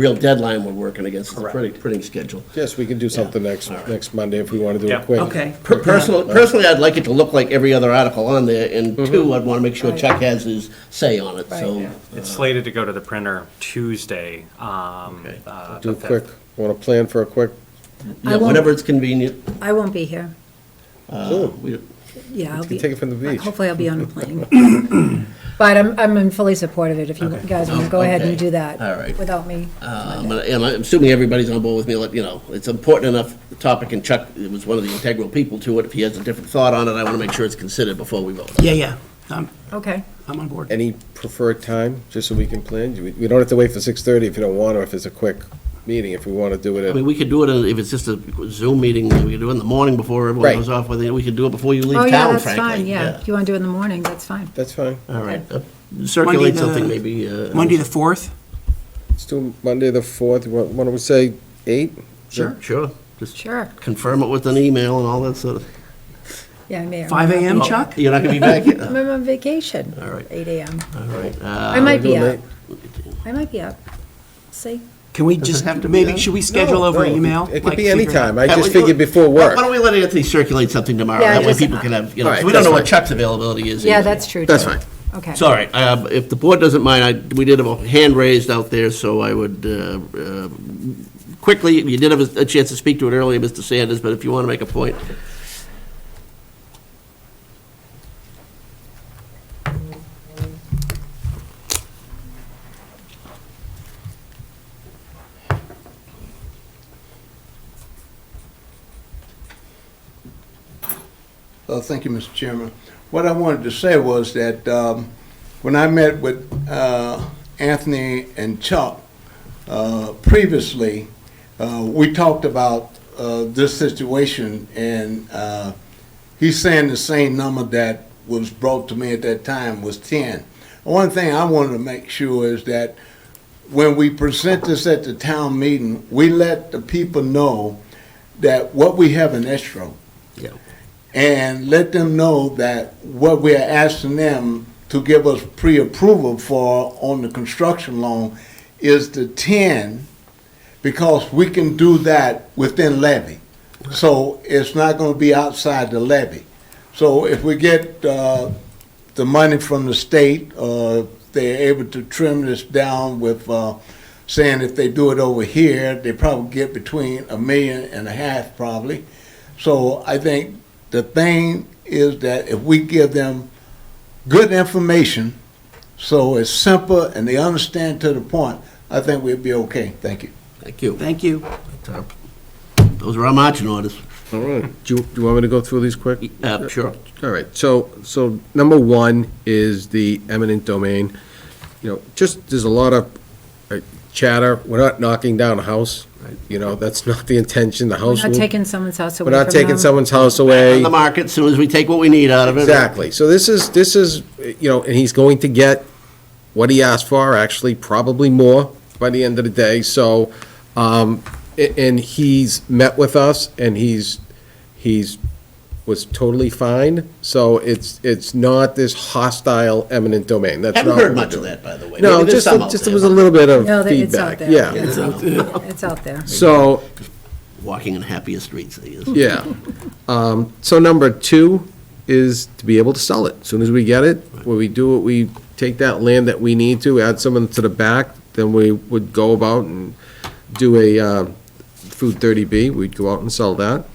real deadline we're working against, is the Correct. printing, printing schedule. Yes, we can do something next, All right. next Monday if we want to do Yeah. it quick. Okay. Per- Personally, personally, I'd like it to look like every other article on there, and two, I'd want to make sure Chuck has his say on it, so. Right. It's slated to go to the printer Tuesday. um, Okay. uh, Do the it quick. 5th. Want to plan for a quick, Yeah, won't- whenever it's convenient. uh, I won't be here. Zoom. We- Yeah, I'll You can be. take it from the beach. Hopefully I'll be on a plane. But I'm, I'm in fully support of it, if you Okay. guys want to go ahead and Okay. do that. All right. Without me. Um, And and I'm assuming everybody's on board with me, like, you know, it's important enough topic, and Chuck was one of the integral people to it. If he has a different thought on it, I want to make sure it's considered before we vote. Yeah, yeah, I'm, Okay, I'm on board. any preferred time, just so we can plan? We we don't have to wait for 6:30 if you don't want, or if it's a quick meeting, if we want to do it I mean, at, we could do it, uh, if it's just a Zoom meeting, we could do it in the morning before everyone Right. goes off, with it. we could do it before you leave oh, town, yeah, frankly. that's fine, yeah, if you want to do it in the morning, that's fine. that's fine. All right, Uh, circulate Monday the- something maybe. uh, Monday, the 4th? Let's do Monday, the 4th, Wha- why don't we say 8? Sure, sure. Just Sure, confirm it with an email and all that sort of. Oh, yeah, I may. or may 5 not be- Oh, a.m., Chuck? You're not going to be back yet? I'm on vacation. Uh-huh. All right. Eight AM. All right. I uh, might be doing up, that. I might be up. See, Can we Does it just, have to be maybe, then? should we schedule No, over no, email? It Like, could be figure any out- time. I That just way- figured before Why work. don't we let Anthony circulate something tomorrow? Yeah, That way just- people can have, you know, All right, 'cause we don't know that's what Chuck's availability is. yeah, either. that's true. That's too. fine. Okay. It's all right. Uh, If the board doesn't mind, I, we did have a hand raised out there, so I would, uh, uh, quickly, you did have a a chance to speak to it earlier, Mr. Sanders, but if you want to make a point. Uh, Thank you, Mr. Chairman. What I wanted to say was that um, when I met with uh, Anthony and Chuck uh, previously, uh, we talked about uh, this situation, and uh, he's saying the same number that was brought to me at that time was 10. One thing I wanted to make sure is that when we present this at the town meeting, we let the people know that what we have in escrow Yeah. and let them know that what we are asking them to give us pre-approval for on the construction loan is the ten, because we can do that within levy. So it's not gonna be outside the levy. So if we get, uh, the money from the state, uh, they're able to trim this down with, uh, saying if they do it over here, they probably get between a million and a half probably. So I think the thing is that if we give them good information, so it's simple and they understand to the point, I think we'll be okay. Thank you. Thank you. Thank you. Those are our marching orders. All right. Do you, do you want me to go through these quick? Uh, Sure. All right, so, so number one is the eminent domain. You know, just, there's a lot of uh, chatter, we're not knocking down a house, you know, that's not the intention, the We're house not will- taking someone's house away We're from them. not taking someone's house On away. the market, as soon as we take what we need out of it. Exactly, so this is, this is, you know, and he's going to get what he asked for, actually, probably more by the end of the day, so, um, a- and he's met with us, and he's, he's, was totally fine, so it's, it's not this hostile eminent domain, that's not. Haven't heard what we're much of doing. that, by the way. No, Maybe there's just, some out just, there, there was a but little bit of No, that- it's feedback, out there. yeah. It's out there. It's out there. So, Walking in happier streets, I guess. Yeah. Um, So number two is to be able to sell it. As Soon as we get it, when we do it, we take that land that we need to, add someone to the back, then we would go about and do a uh, food 30B, we'd go out and sell that.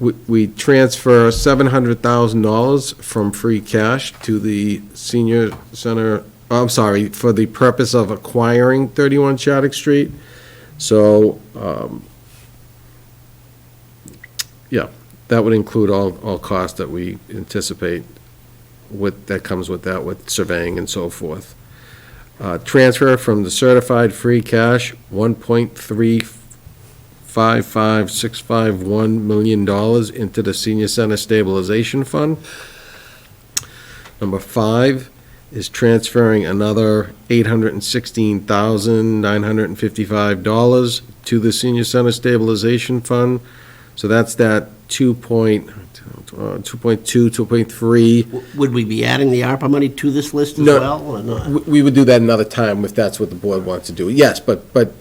We- We transfer $700,000 from free cash to the senior center, oh, I'm sorry, for the purpose of acquiring 31 Shattuck Street. So um, yeah, that would include all, all costs that we anticipate with, that comes with that, with surveying and so forth. Uh, Transfer from the certified free cash, one point three five five six five one million dollars into the senior center stabilization fund. Number five is transferring another eight hundred and sixteen thousand nine hundred and fifty-five dollars to the senior center stabilization fund So that's that two point, uh, two point two, two point three. W- Would we be adding the ARPA money to this list as No. well, or not? We would do that another time if that's what the board wants to do. Yes, but, but